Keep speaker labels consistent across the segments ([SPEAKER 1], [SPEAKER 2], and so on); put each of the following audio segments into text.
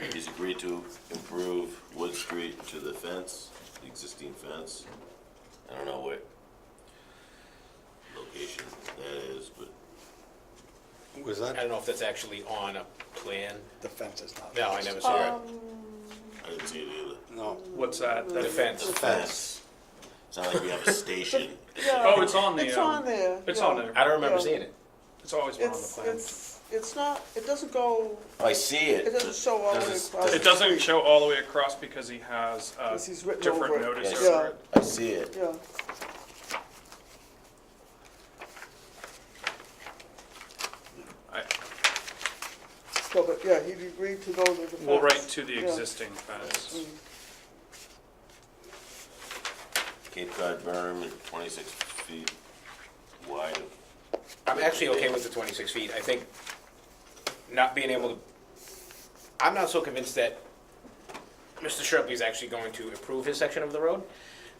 [SPEAKER 1] parties agreed to improve Wood Street to the fence, the existing fence. I don't know what location that is, but
[SPEAKER 2] Was
[SPEAKER 3] I
[SPEAKER 2] that,
[SPEAKER 3] don't know if that's actually on a plan.
[SPEAKER 2] the fence is not?
[SPEAKER 3] No, I never
[SPEAKER 1] Uh,
[SPEAKER 3] saw it.
[SPEAKER 1] I didn't see it either.
[SPEAKER 2] No,
[SPEAKER 4] What's that?
[SPEAKER 3] The
[SPEAKER 4] That-
[SPEAKER 3] fence.
[SPEAKER 1] Fence. It's not like we have a station.
[SPEAKER 4] Oh, it's on the,
[SPEAKER 5] It's
[SPEAKER 4] um,
[SPEAKER 5] on there.
[SPEAKER 4] It's
[SPEAKER 5] yeah.
[SPEAKER 4] on there.
[SPEAKER 3] I don't remember
[SPEAKER 5] Yeah.
[SPEAKER 3] seeing it.
[SPEAKER 4] It's always been on the
[SPEAKER 5] It's,
[SPEAKER 4] plan.
[SPEAKER 5] it's, it's not, it doesn't go,
[SPEAKER 1] I see it.
[SPEAKER 5] it doesn't show all the way
[SPEAKER 1] Doesn't-
[SPEAKER 5] across.
[SPEAKER 4] It doesn't show all the way across because he has uh,
[SPEAKER 5] 'Cause he's written
[SPEAKER 4] different
[SPEAKER 5] over it.
[SPEAKER 4] notice
[SPEAKER 1] Yeah.
[SPEAKER 4] over it.
[SPEAKER 1] I see it.
[SPEAKER 5] Yeah,
[SPEAKER 4] I-
[SPEAKER 5] so, but, yeah, he agreed to go to the fence.
[SPEAKER 4] We'll write to the
[SPEAKER 5] Yeah.
[SPEAKER 4] existing fence.
[SPEAKER 1] Cape Cod berm and twenty-six feet wide of
[SPEAKER 3] I'm actually okay with the 26 feet. I think not being able to, I'm not so convinced that Mr. Sharpley is actually going to improve his section of the road.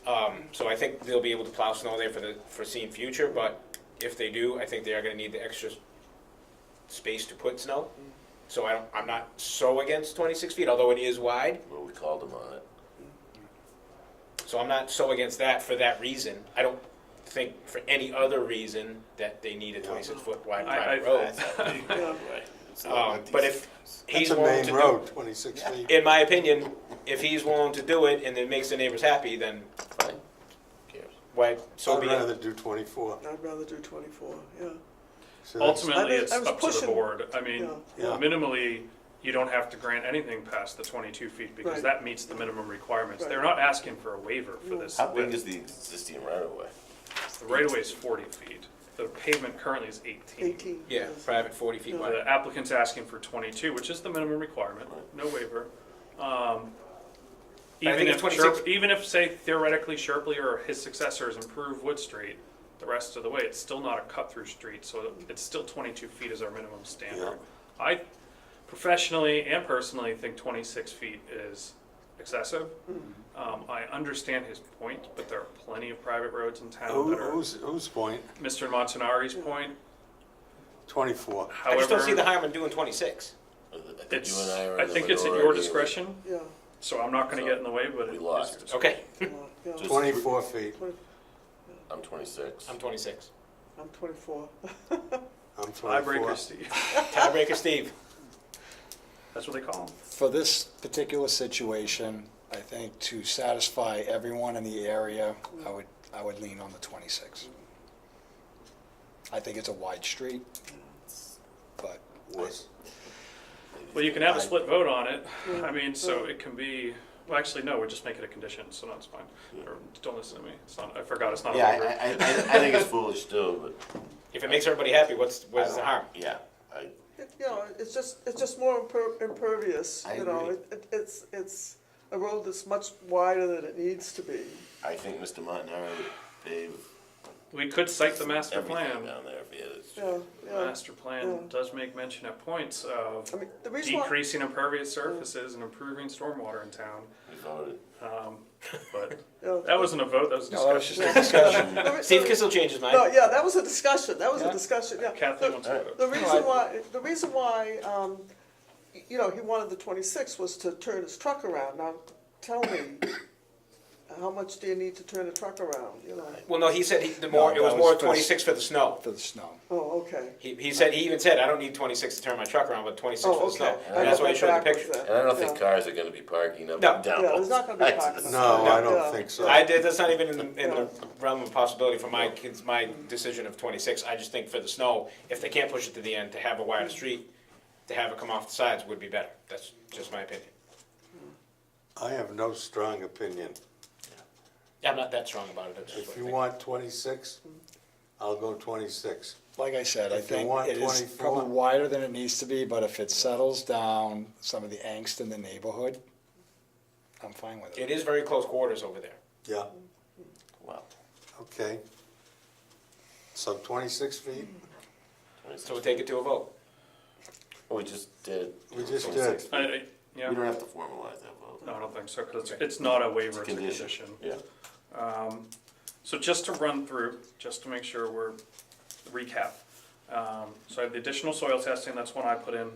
[SPEAKER 3] Um, So I think they'll be able to plow snow there for the foreseen future, but if they do, I think they are gonna need the extra space to put snow. So I don't, I'm not so against 26 feet, although it is wide.
[SPEAKER 1] Well, we called them on it.
[SPEAKER 3] So I'm not so against that for that reason. I don't think for any other reason that they need a 26 foot wide
[SPEAKER 4] I-
[SPEAKER 3] private
[SPEAKER 4] I-
[SPEAKER 3] road.
[SPEAKER 5] Yeah,
[SPEAKER 3] Um, but if
[SPEAKER 2] that's
[SPEAKER 3] he's
[SPEAKER 2] a
[SPEAKER 3] willing to
[SPEAKER 2] main
[SPEAKER 3] do,
[SPEAKER 2] road, 26 feet.
[SPEAKER 3] in my opinion, if he's willing to do it and it makes the neighbors happy, then
[SPEAKER 1] Fine. Cares.
[SPEAKER 3] why, so
[SPEAKER 2] I'd
[SPEAKER 3] be
[SPEAKER 2] rather
[SPEAKER 3] it.
[SPEAKER 2] do 24.
[SPEAKER 5] I'd rather do twenty-four, yeah.
[SPEAKER 2] So that's-
[SPEAKER 5] I
[SPEAKER 4] Ultimately,
[SPEAKER 5] was-
[SPEAKER 4] it's
[SPEAKER 5] I was
[SPEAKER 4] up to the
[SPEAKER 5] pushing-
[SPEAKER 4] board. I mean,
[SPEAKER 2] Yeah. Yeah.
[SPEAKER 4] minimally, you don't have to grant anything past the 22 feet because
[SPEAKER 5] Right.
[SPEAKER 4] that meets the minimum requirements.
[SPEAKER 5] Right.
[SPEAKER 4] They're not asking for a waiver for this.
[SPEAKER 1] How big
[SPEAKER 4] width.
[SPEAKER 1] is the existing right of way?
[SPEAKER 4] The right of way is 40 feet. The pavement currently is 18.
[SPEAKER 5] Eighteen.
[SPEAKER 3] Yeah,
[SPEAKER 5] yes.
[SPEAKER 3] private 40 feet wide.
[SPEAKER 4] The applicant's asking for 22, which is the minimum requirement, no waiver. Um,
[SPEAKER 3] But I
[SPEAKER 4] Even
[SPEAKER 3] think
[SPEAKER 4] if,
[SPEAKER 3] it's 26
[SPEAKER 4] Sherp- even if, say theoretically Sherpley or his successors improve Wood Street the rest of the way, it's still not a cut-through street, so it's still 22 feet is our minimum standard. I professionally and personally think 26 feet is excessive.
[SPEAKER 3] Hmm.
[SPEAKER 4] Um, I understand his point, but there are plenty of private roads in town
[SPEAKER 2] Who-
[SPEAKER 4] that are,
[SPEAKER 2] Who's, who's point?
[SPEAKER 4] Mr. Montanari's point,
[SPEAKER 2] 24.
[SPEAKER 3] I just don't see the
[SPEAKER 4] however,
[SPEAKER 3] harm in doing 26.
[SPEAKER 1] I think you
[SPEAKER 4] it's,
[SPEAKER 1] and I are
[SPEAKER 4] I
[SPEAKER 1] in the
[SPEAKER 4] think it's at
[SPEAKER 1] minority.
[SPEAKER 4] your discretion.
[SPEAKER 5] Yeah,
[SPEAKER 4] So I'm not gonna get in the way, but.
[SPEAKER 1] We
[SPEAKER 4] it-
[SPEAKER 1] lost.
[SPEAKER 4] it's-
[SPEAKER 3] Okay,
[SPEAKER 5] yeah, yeah.
[SPEAKER 1] Just-
[SPEAKER 2] 24 feet.
[SPEAKER 5] Twenty-
[SPEAKER 1] I'm twenty-six.
[SPEAKER 3] I'm 26.
[SPEAKER 5] I'm twenty-four.
[SPEAKER 2] I'm 24.
[SPEAKER 4] Tiebreaker, Steve.
[SPEAKER 3] Tiebreaker Steve.
[SPEAKER 4] That's what they call them.
[SPEAKER 6] For this particular situation, I think to satisfy everyone in the area, I would, I would lean on the 26. I think it's a wide street, but
[SPEAKER 2] Was-
[SPEAKER 4] Well, you can have a split vote on it. I mean, so it can be, well, actually, no, we just make it a condition, so that's fine. Or, don't listen to me. It's not, I forgot, it's not a
[SPEAKER 1] Yeah,
[SPEAKER 4] waiver.
[SPEAKER 1] I, I, I- I think it's foolish too,
[SPEAKER 3] If it makes everybody happy, what's,
[SPEAKER 1] but.
[SPEAKER 3] what's the harm?
[SPEAKER 1] Yeah, I,
[SPEAKER 5] It- You know, it's just, it's just more imper- impervious,
[SPEAKER 1] I
[SPEAKER 5] you know,
[SPEAKER 1] agree.
[SPEAKER 5] it, it- it's, it's a road that's much wider than it needs to be.
[SPEAKER 1] I think Mr. Montanaro would pave
[SPEAKER 4] We could cite the master
[SPEAKER 1] everything
[SPEAKER 4] plan.
[SPEAKER 1] down there if he had his.
[SPEAKER 5] Yeah, yeah.
[SPEAKER 4] Master plan does make mention at points of
[SPEAKER 5] I mean, the reason why,
[SPEAKER 4] decreasing impervious surfaces and improving stormwater in town,
[SPEAKER 1] We voted.
[SPEAKER 4] but
[SPEAKER 5] yeah.
[SPEAKER 4] that wasn't a vote, that was a
[SPEAKER 6] no, that was
[SPEAKER 4] discussion.
[SPEAKER 6] just a discussion.
[SPEAKER 5] The re-
[SPEAKER 3] Steve
[SPEAKER 5] the-
[SPEAKER 3] can still change his mind.
[SPEAKER 5] No, yeah, that was a discussion, that was a
[SPEAKER 6] Yeah.
[SPEAKER 5] discussion, yeah.
[SPEAKER 4] Kathleen
[SPEAKER 5] The-
[SPEAKER 4] wants to vote.
[SPEAKER 5] The reason
[SPEAKER 6] I-
[SPEAKER 5] why, the reason why, um, y- you know, he wanted the twenty-six was to turn his truck around. Now, tell me, how much do you need to turn a truck around, you know?
[SPEAKER 3] Well, no, he said he, the more,
[SPEAKER 6] No,
[SPEAKER 3] it was
[SPEAKER 6] that
[SPEAKER 3] more
[SPEAKER 6] was-
[SPEAKER 3] 26 for the snow.
[SPEAKER 6] For the snow.
[SPEAKER 5] Oh, okay.
[SPEAKER 3] He, he said, he even said, I don't need 26 to turn my truck around, but 26
[SPEAKER 5] Oh,
[SPEAKER 3] for the
[SPEAKER 5] okay.
[SPEAKER 3] snow.
[SPEAKER 5] I
[SPEAKER 3] And that's
[SPEAKER 5] got
[SPEAKER 3] why he
[SPEAKER 5] that
[SPEAKER 3] showed the
[SPEAKER 5] backwards
[SPEAKER 3] picture.
[SPEAKER 5] then.
[SPEAKER 1] And I don't think
[SPEAKER 5] Yeah.
[SPEAKER 1] cars are gonna be parking up
[SPEAKER 3] No.
[SPEAKER 1] and down.
[SPEAKER 5] Yeah,
[SPEAKER 1] both
[SPEAKER 5] there's not gonna be
[SPEAKER 1] sides of
[SPEAKER 5] parking.
[SPEAKER 1] this.
[SPEAKER 2] No, I
[SPEAKER 5] Yeah.
[SPEAKER 2] don't think so.
[SPEAKER 3] I did, that's not even in the, in the realm of possibility for my kids, my decision of twenty-six, I just think for the snow, if they can't push it to the end, to have a wider street, to have it come off the sides would be better, that's just my opinion.
[SPEAKER 2] I have no strong opinion.
[SPEAKER 3] Yeah, I'm not that strong about it, that's just
[SPEAKER 2] If
[SPEAKER 3] what I
[SPEAKER 2] you
[SPEAKER 3] think.
[SPEAKER 2] want 26, I'll go 26.
[SPEAKER 6] Like I said, I
[SPEAKER 2] If you
[SPEAKER 6] think
[SPEAKER 2] want
[SPEAKER 6] it is
[SPEAKER 2] 24.
[SPEAKER 6] probably wider than it needs to be, but if it settles down some of the angst in the neighborhood, I'm fine with it.
[SPEAKER 3] It is very close quarters over there.
[SPEAKER 2] Yeah,
[SPEAKER 1] Wow.
[SPEAKER 2] okay. So 26 feet?
[SPEAKER 3] So we'll take it to a vote.
[SPEAKER 1] We just did.
[SPEAKER 2] We just
[SPEAKER 1] 26.
[SPEAKER 4] I, I- yeah,
[SPEAKER 1] We don't have to formalize that vote.
[SPEAKER 4] no, I don't think so, because it's not a waiver, it's a
[SPEAKER 1] Condition.
[SPEAKER 4] condition.
[SPEAKER 1] Yeah.
[SPEAKER 4] So just to run through, just to make sure we're, recap. Um, So I have the additional soil testing, that's one I put in.